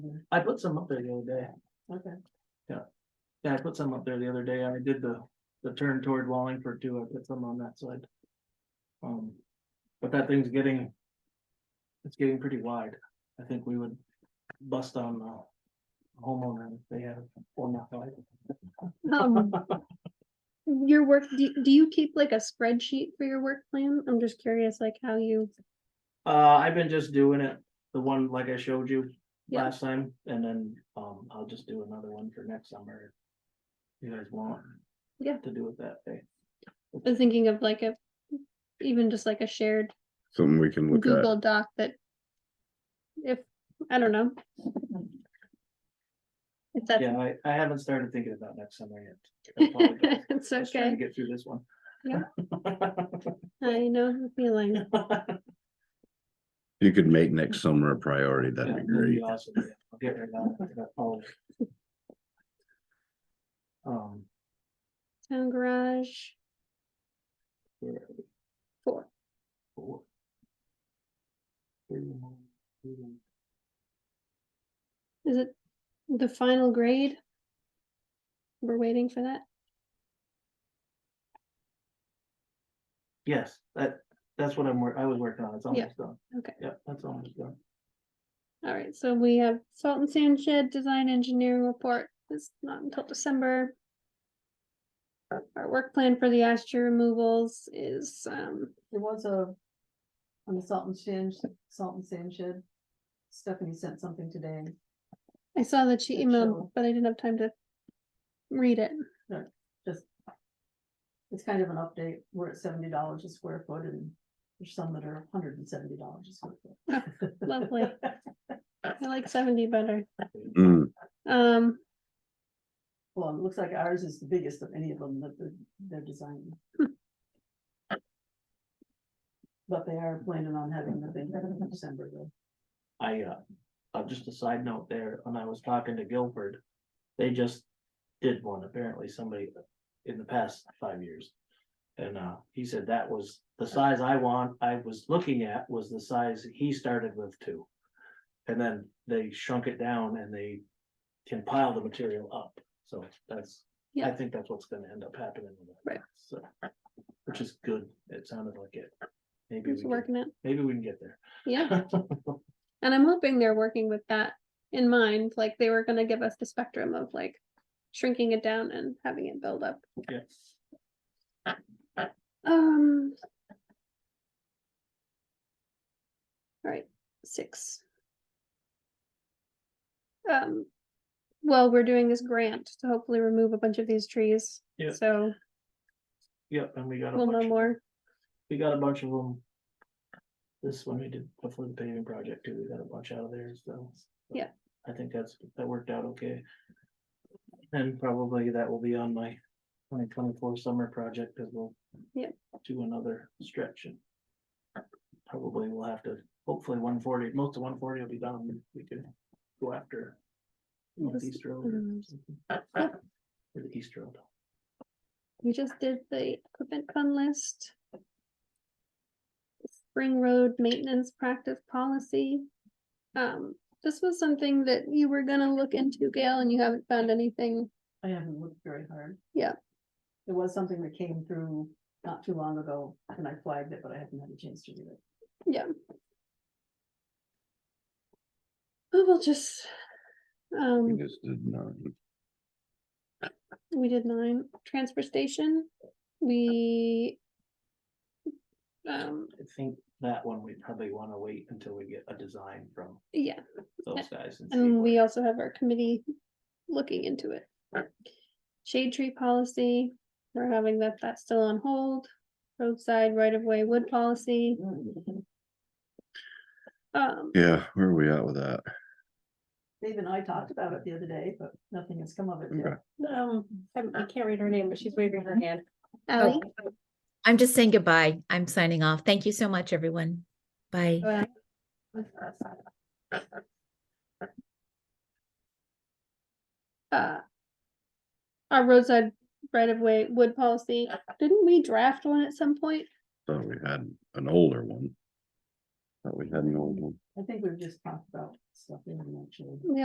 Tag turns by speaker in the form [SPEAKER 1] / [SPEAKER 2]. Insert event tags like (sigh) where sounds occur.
[SPEAKER 1] I put some up there the other day.
[SPEAKER 2] Okay.
[SPEAKER 1] Yeah, I put some up there the other day. I did the, the turn toward Wallingford too. I put some on that side. Um, but that thing's getting. It's getting pretty wide. I think we would bust on the homeowner if they had one that wide.
[SPEAKER 3] Um, Your work, do, do you keep like a spreadsheet for your work plan? I'm just curious, like how you,
[SPEAKER 1] Uh, I've been just doing it, the one like I showed you
[SPEAKER 3] Yeah.
[SPEAKER 1] last time, and then, um, I'll just do another one for next summer. if You guys want?
[SPEAKER 3] Yeah.
[SPEAKER 1] To do it that day.
[SPEAKER 3] I'm thinking of like a, even just like a shared
[SPEAKER 4] something we can look at.
[SPEAKER 3] Google Doc that if, I don't know. If that's,
[SPEAKER 1] Yeah, I, I haven't started thinking about next summer yet. I apologize.
[SPEAKER 3] (laughs) it's
[SPEAKER 1] Just trying to
[SPEAKER 3] okay.
[SPEAKER 1] Get through this one. (laughs)
[SPEAKER 3] Yeah. I know the feeling.
[SPEAKER 4] You could make next summer a priority,
[SPEAKER 1] Yeah,
[SPEAKER 4] that'd be
[SPEAKER 1] that'd
[SPEAKER 4] great.
[SPEAKER 1] be awesome, yeah. I'll get right on it, that folder. Um,
[SPEAKER 3] Town garage,
[SPEAKER 1] where are we?
[SPEAKER 3] Four.
[SPEAKER 1] Four. Three, one, two,
[SPEAKER 3] is it the final grade? We're waiting for that.
[SPEAKER 1] Yes, that, that's what I'm, wor- I was working on, it's
[SPEAKER 3] Yeah,
[SPEAKER 1] almost done.
[SPEAKER 3] okay.
[SPEAKER 1] Yep, that's almost done.
[SPEAKER 3] All right, so we have salt and sand shed design engineering report. It's not until December. Our- Our work plan for the ash removals is, um,
[SPEAKER 2] There was a, on the salt and sand, salt and sand shed. Stephanie sent something today.
[SPEAKER 3] I saw that she
[SPEAKER 2] Good
[SPEAKER 3] emailed,
[SPEAKER 2] show.
[SPEAKER 3] but I didn't have time to read it.
[SPEAKER 2] It's kind of an update. We're at seventy dollars a square foot and there's some that are hundred and seventy dollars a square foot.
[SPEAKER 3] Lovely. I like seventy better.
[SPEAKER 4] Mm,
[SPEAKER 3] Um,
[SPEAKER 2] Well, it looks like ours is the biggest of any of them that they're, they're designing. But they are planning on having the thing in December though.
[SPEAKER 1] I, uh, uh, just a side note there, when I was talking to Guilford, they just did one, apparently somebody in the past five years. And, uh, he said that was the size I want, I was looking at was the size he started with too. And then they shrunk it down and they can pile the material up, so that's, I
[SPEAKER 3] Yeah.
[SPEAKER 1] think that's what's gonna end up happening. with that,
[SPEAKER 3] Right.
[SPEAKER 1] So, which is good, it sounded like it. Maybe we
[SPEAKER 3] it's
[SPEAKER 1] can,
[SPEAKER 3] working out,
[SPEAKER 1] maybe we can get there.
[SPEAKER 3] yeah. And I'm hoping they're working with that in mind, like they were gonna give us the spectrum of like shrinking it down and having it build up.
[SPEAKER 1] Yes.
[SPEAKER 3] Um. All right, six. Um, well, we're doing this grant to hopefully remove a bunch of these trees.
[SPEAKER 1] Yeah.
[SPEAKER 3] So
[SPEAKER 1] Yep, and we got a
[SPEAKER 3] we'll know
[SPEAKER 1] bunch, of-
[SPEAKER 3] more.
[SPEAKER 1] we got a bunch of them. This one we did before the paving project too, we got a bunch out of there, so.
[SPEAKER 3] Yeah.
[SPEAKER 1] I think that's, that worked out okay. And probably that will be on my twenty twenty-four summer project, cause we'll.
[SPEAKER 3] Yep.
[SPEAKER 1] Do another stretch and. Probably we'll have to, hopefully one forty, most of one forty will be done, and we could go after.
[SPEAKER 3] Yes.
[SPEAKER 1] Northeast Road. or
[SPEAKER 3] Mhm.
[SPEAKER 1] something.
[SPEAKER 3] Yeah.
[SPEAKER 1] Or the East Road.
[SPEAKER 3] We just did the equipment fund list. Spring Road Maintenance Practice Policy. Um, this was something that you were gonna look into, Gail, and you haven't found anything.
[SPEAKER 2] I haven't looked very hard.
[SPEAKER 3] Yeah.
[SPEAKER 2] There was something that came through not too long ago and I flagged it, but I haven't had a chance to do it.
[SPEAKER 3] Oh, we'll just.
[SPEAKER 4] we
[SPEAKER 3] Um,
[SPEAKER 4] just did not.
[SPEAKER 3] we did nine, transfer station, we. Um,
[SPEAKER 1] I think that one we probably wanna wait until we get a design from
[SPEAKER 3] yeah,
[SPEAKER 1] those guys. and see
[SPEAKER 3] and
[SPEAKER 1] what-
[SPEAKER 3] we also have our committee looking into it. Shade tree policy, we're having that, that's still on hold, roadside right of way wood policy, um,
[SPEAKER 4] Yeah, where are we at with that?
[SPEAKER 2] Dave and I talked about it the other day, but nothing has come of it yet.
[SPEAKER 4] Okay.
[SPEAKER 5] Um, I I can't read her name, but she's waving her hand.
[SPEAKER 3] Ally,
[SPEAKER 6] I'm just saying goodbye. I'm signing off. Thank you so much, everyone. Bye.
[SPEAKER 3] uh, uh. Our roadside right of way wood policy, didn't we draft one at some point?
[SPEAKER 4] Thought we had an older one. Thought we had an old one.
[SPEAKER 2] I think we've just talked about stuff in the actual.